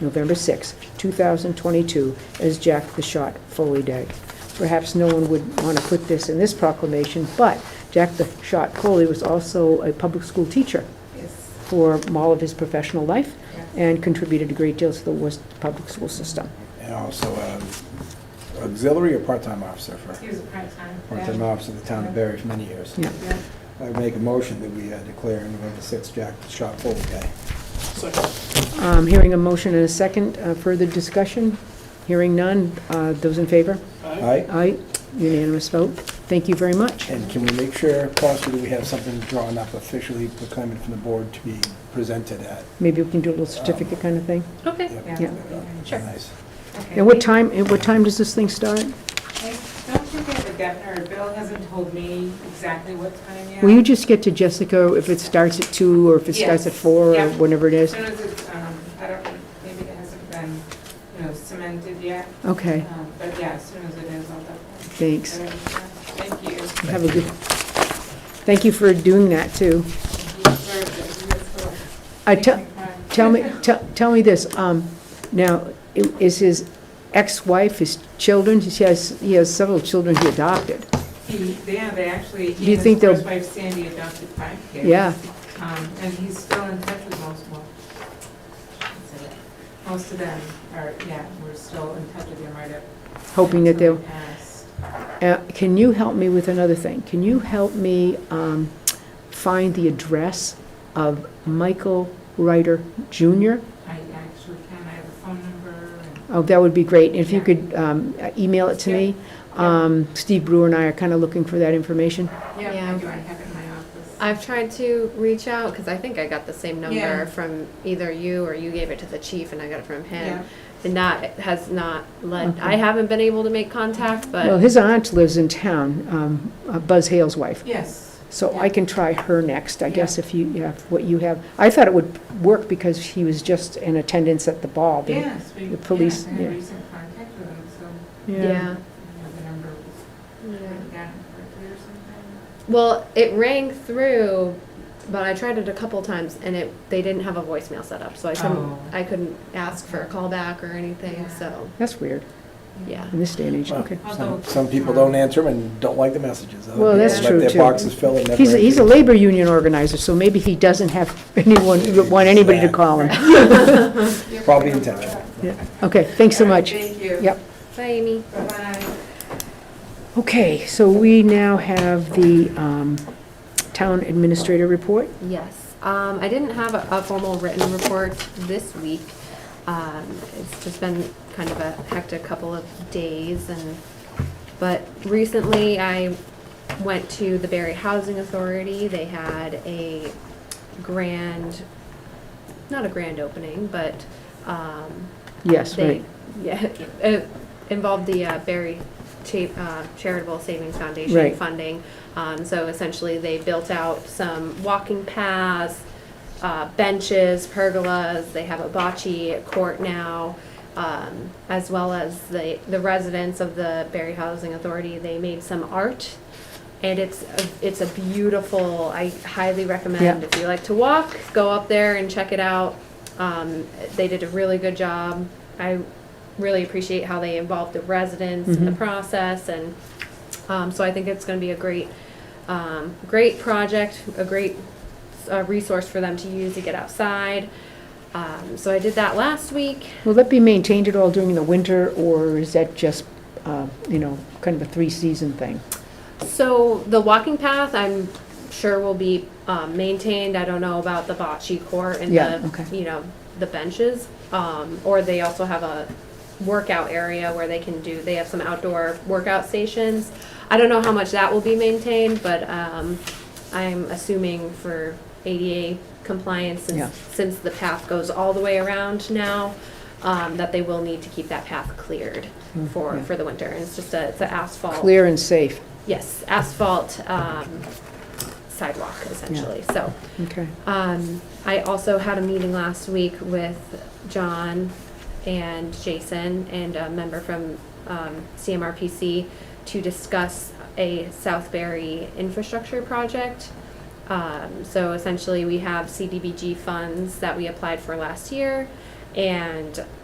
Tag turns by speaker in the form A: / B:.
A: November 6, 2022, as Jack the Shot Foley Day. Perhaps no one would want to put this in this proclamation, but Jack the Shot Foley was also a public school teacher
B: Yes.
A: for all of his professional life
B: Yeah.
A: and contributed a great deal to the Worcester public school system.
C: And also um, auxiliary or part-time officer for,
B: He was a part-time.
C: part-time officer of the town of Barry for many years.
A: Yeah.
B: Yeah.
C: I would make a motion that we uh, declare November 6th Jack the Shot Full Day.
A: Um, Hearing a motion and a second, uh, further discussion? Hearing none, uh, those in favor?
C: All right?
A: Aye, unanimous vote. Thank you very much.
C: And can we make sure possibly we have something drawn up officially proclaiming from the board to be presented at?
A: Maybe we can do a little certificate kind of thing.
D: Okay.
C: Yep.
B: Yeah.
A: Yeah.
B: Sure.
C: Nice.
B: Okay.
A: And what time, and what time does this thing start?
B: I don't think I have a definite, Bill hasn't told me exactly what time yet.
A: Will you just get to Jessica if it starts at two, or if it starts at
B: Yes.
A: four, or
B: Yeah.
A: whenever it
B: As
A: is?
B: soon as it's, um, I don't, maybe it hasn't been, you know, cemented yet,
A: Okay,
B: um, but yeah, as soon as it is, I'll definitely.
A: thanks.
B: Thank you.
A: Have a good, thank you for doing that, too.
B: Thank you for doing this for-
A: I te-
B: making time.
A: Tell me, te- tell me this, um, now, i- is his ex-wife, his children, he has, he has several children he adopted.
B: He, yeah, they actually,
A: Do you
B: he and his
A: think they'll-
B: first wife Sandy adopted five kids.
A: Yeah,
B: Um, and he's still in touch with most of them. Most of them are, yeah, we're still in touch with them right up.
A: hoping that
B: until
A: they'll,
B: he passed.
A: uh, can you help me with another thing? Can you help me, um, find the address of Michael Ryder Jr.?
B: I actually can, I have a phone number and.
A: Oh, that would be great, if you
B: Yeah.
A: could, um, email it to me.
B: Yeah.
A: Um, Steve Brewer and I are kinda looking for that information.
B: Yeah,
D: Yeah.
B: I do, I have it in my office.
D: I've tried to reach out because I think I got the same number
B: Yeah.
D: from either you or you gave it to the chief and I got it from him.
B: Yeah,
D: And that has not led.
A: Okay.
D: I haven't been able to make contact, but
A: Well, his aunt lives in town, um, uh, Buzz Hale's wife.
B: yes.
A: So I can try her next, I guess,
B: Yeah.
A: if you, yeah, if what you have. I thought it would work because he was just in attendance at the ball. the-
B: Yes, we, yeah,
A: the police-
B: I had
A: yeah.
B: recent contact with them, so,
D: yeah.
B: you know, the number was, I
D: yeah.
B: got it correctly or something.
D: Well, it rang through, but I tried it a couple times and it they didn't have a voicemail set up, so I couldn't
B: Oh.
D: I couldn't ask for a callback or anything.
B: Yeah.
D: So
A: That's weird,
D: yeah.
A: in this day and age,
C: Well,
A: okay.
C: Some, some people don't answer them and don't like the messages. Other
A: Well,
C: people
D: that's true,
C: Let
A: too.
C: their boxes fill and never.
A: He's, a- he's a
C: answer.
A: labor union organizer, so maybe he doesn't have anyone, want anybody to call him.
B: Yeah.
C: Probably in time.
A: Yeah. Okay, thanks so
B: All right,
A: much.
B: Thank you.
A: Yep.
D: Bye, Amy.
B: Bye-bye.
A: Okay, so we now have the um, town administrator report.
D: Yes, um, I didn't have a, a formal written report this week. Um, it's just been kind of a hectic couple of days and, but recently I went to the Barry Housing Authority. They had a grand, not a grand opening, but, um,
A: Yes,
D: they-
A: right.
D: Yeah, it involved the uh, Berry Cha- uh, Charitable Savings Foundation
A: Right.
D: funding. Um, So essentially, they built out some walking paths, uh, benches, pergolas, they have a bocce court now, um, as well as the the residents of the Berry Housing Authority, they made some art. And it's, a- it's a beautiful, I highly recommend,
A: Yeah.
D: if you like to walk, go up there and check it out. Um, They did a really good job. I really appreciate how they involved the residents in the
A: Mhm.
D: process, and um, so I think it's going to be a great, um, great project, a great uh, resource for them to use to get outside. Um, so I did that last week.
A: Will that be maintained at all during the winter, or is that just, uh, you know, kind of a three-season thing?
D: So the walking path, I'm sure will be um, maintained. I don't know about the bocce court and
A: Yeah,
D: the,
A: okay.
D: you know, the benches. Um, or they also have a workout area where they can do, they have some outdoor workout stations. I don't know how much that will be maintained, but um, I'm assuming for ADA compliance,
A: Yeah.
D: since, since the path goes all the way around now, um, that they will need to keep that path cleared
A: Mm,
D: for,
A: yeah.
D: for the winter. And it's just a, it's an asphalt.
A: Clear and safe,
D: Yes, asphalt um, sidewalk essentially, so.
A: okay.
D: um, I also had a meeting last week with John and Jason and a member from um, CMRPC to discuss a Southbury infrastructure project. Um, So essentially, we have CDBG funds that we applied for last year, And